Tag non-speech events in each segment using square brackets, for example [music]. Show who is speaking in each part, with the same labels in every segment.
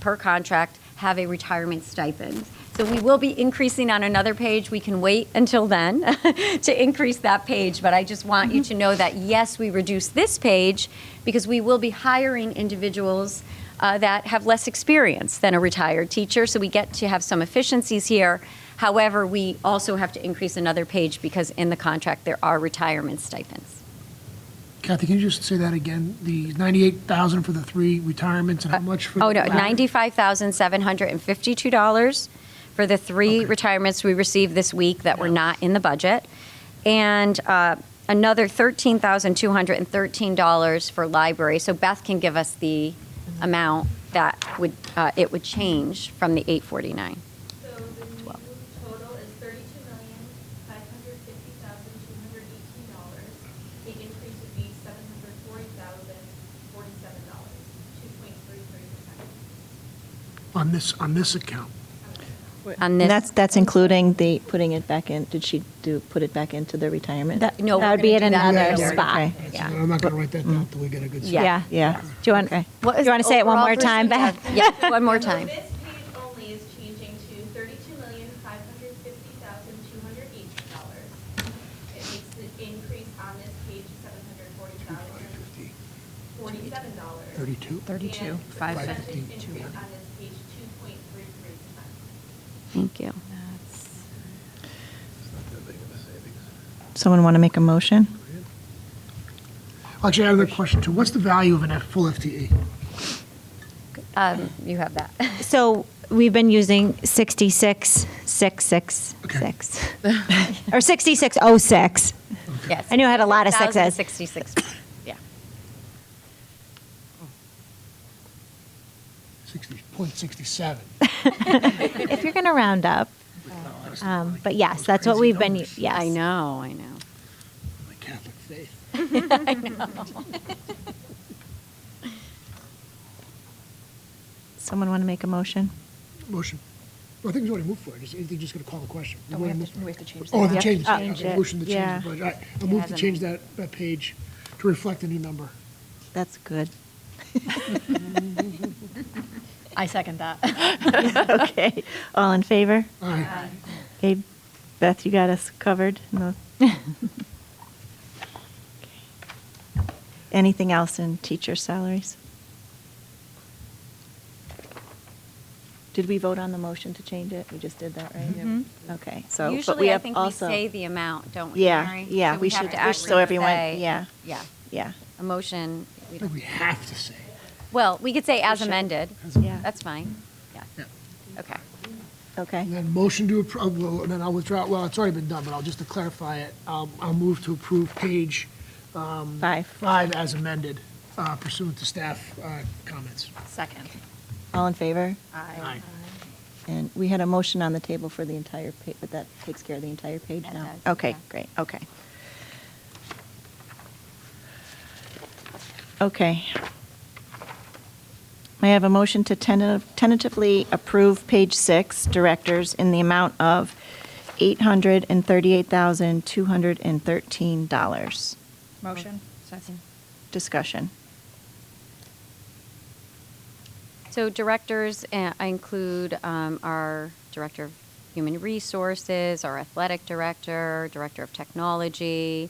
Speaker 1: per contract have a retirement stipend. So we will be increasing on another page. We can wait until then [laughs] to increase that page, but I just want you to know that, yes, we reduced this page because we will be hiring individuals uh, that have less experience than a retired teacher, so we get to have some efficiencies here. However, we also have to increase another page because in the contract, there are retirement stipends.
Speaker 2: Kathy, can you just say that again? The 98,000 for the three retirements and how much for?
Speaker 1: Oh, no,
Speaker 2: the-
Speaker 1: $95,752 for the three
Speaker 2: Okay.
Speaker 1: retirements we received this week that were not in the budget, and uh, another $13,213 for library. So Beth can give us the amount that would, uh, it would change from the 849.
Speaker 3: So the new total is thirty-two million, five hundred fifty thousand, two hundred eighteen dollars. The increase would be seven hundred forty thousand, forty-seven dollars, two point three three percent.
Speaker 2: On this, on this account.
Speaker 1: On
Speaker 4: And
Speaker 1: this-
Speaker 4: that's, that's including the, putting it back in, did she do, put it back into the retirement?
Speaker 1: That- no,
Speaker 5: That
Speaker 1: we're
Speaker 5: would be
Speaker 1: gonna
Speaker 5: at
Speaker 1: do that
Speaker 5: another
Speaker 1: later.
Speaker 5: spot.
Speaker 1: Okay. Mm-hmm.
Speaker 2: So
Speaker 1: Yeah.
Speaker 2: I'm not going to write that down until we get a good.
Speaker 1: Yeah.
Speaker 5: Yeah, yeah. Do you want, do
Speaker 1: What is
Speaker 5: you want to
Speaker 1: the
Speaker 5: say it one
Speaker 1: overall
Speaker 5: more time,
Speaker 1: percentage?
Speaker 5: Beth?
Speaker 1: Yeah, one more time.
Speaker 3: This page only is changing to thirty-two million, five hundred fifty thousand, two hundred eighteen dollars. It makes the increase on this page seven hundred forty thousand,
Speaker 2: 550,
Speaker 3: forty-seven dollars.
Speaker 2: 32?
Speaker 3: And the
Speaker 2: 550,
Speaker 3: percentage increase on this page, two point three three percent.
Speaker 1: Thank you.
Speaker 4: Someone want to make a motion?
Speaker 2: Actually, I have another question too. What's the value of a full E? FTE?
Speaker 1: Um, You have that.
Speaker 5: So we've been using 66666, [laughs] or [laughs] 6606.
Speaker 1: Yes.
Speaker 5: I knew I had a lot of sixes.
Speaker 1: 66, yeah.
Speaker 2: 60.67.
Speaker 5: If you're going to round up, um, but yes, that's what we've been, u-
Speaker 2: using.
Speaker 5: yes.
Speaker 1: I know, I know.
Speaker 2: My Catholic faith.
Speaker 4: Someone want to make a motion?
Speaker 2: Motion. Well, I think we already moved for it. Is anything just going to call the question?
Speaker 6: Oh, we have to- we have to change
Speaker 2: Oh,
Speaker 6: that.
Speaker 2: the
Speaker 6: Yep.
Speaker 2: change.
Speaker 4: Oh, change
Speaker 2: Okay,
Speaker 4: it.
Speaker 2: Motion to
Speaker 4: Yeah.
Speaker 2: change the budget. All right, I move to change that, that page to reflect the new number.
Speaker 4: That's good.
Speaker 6: I second that.
Speaker 4: [laughs] Okay, all in favor?
Speaker 2: All right.
Speaker 4: Okay, Beth, you got us covered. No. [laughs] Anything else in teacher salaries? Did we vote on the motion to change it? We just did that, right? Okay, so. but
Speaker 1: Mm-hmm.
Speaker 4: we
Speaker 1: Usually, I
Speaker 4: have
Speaker 1: think we
Speaker 4: also-
Speaker 1: say the amount, don't we,
Speaker 4: Yeah,
Speaker 1: Mary?
Speaker 4: yeah,
Speaker 1: So
Speaker 4: we
Speaker 1: have
Speaker 4: should-
Speaker 1: to
Speaker 4: we should-
Speaker 1: actually
Speaker 4: so everyone-
Speaker 1: say-
Speaker 4: yeah.
Speaker 1: Yeah,
Speaker 4: Yeah,
Speaker 1: a motion. we
Speaker 2: I think
Speaker 1: don't-
Speaker 2: we have to say.
Speaker 1: Well, we could say as amended.
Speaker 4: Yeah.
Speaker 1: That's fine, yeah. Okay.
Speaker 4: okay.
Speaker 2: And then motion to approve, well, and then I'll withdraw, well, it's already been done, but I'll, just to clarify it, I'll, I'll move to approve page um,
Speaker 4: Five.
Speaker 2: five as amended uh, pursuant to staff uh, comments.
Speaker 6: Second.
Speaker 4: All in favor?
Speaker 2: Aye.
Speaker 4: And we had a motion on the table for the entire page, but that takes care of the entire page
Speaker 1: That
Speaker 4: now?
Speaker 1: does,
Speaker 4: Okay,
Speaker 1: yeah.
Speaker 4: great, okay. Okay. May I have a motion to tenta- tentatively approve page six, directors, in the amount of $838,213?
Speaker 6: Motion?
Speaker 4: Discussion.
Speaker 1: So directors, uh, I include um, our Director of Human Resources, our Athletic Director, Director of Technology,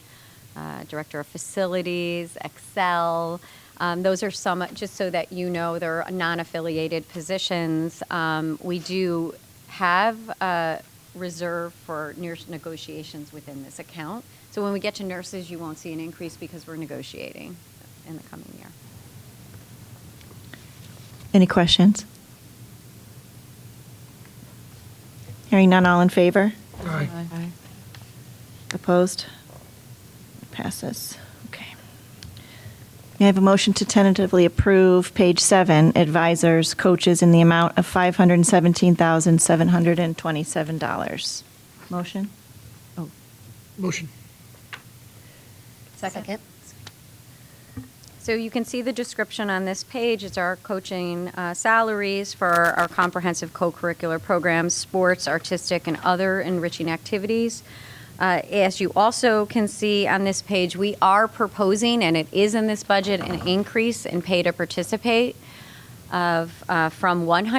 Speaker 1: uh, Director of Facilities, Excel. Um, Those are some, just so that you know, they're non-affiliated positions. Um, We do have a reserve for nurse negotiations within this account. So when we get to nurses, you won't see an increase because we're negotiating in the coming year.
Speaker 4: Any questions? Hearing none, all in favor?
Speaker 2: Aye.
Speaker 4: Opposed? Passes. Okay. May I have a motion to tentatively approve page seven, advisors, coaches, in the amount of $517,727? Motion? Oh,
Speaker 2: Motion.
Speaker 6: Second.
Speaker 1: So you can see the description on this page. It's our coaching uh, salaries for our comprehensive co-curricular programs, sports, artistic, and other enriching activities. Uh, As you also can see on this page, we are proposing, and it is in this budget, an increase in pay to participate. of, uh, from 100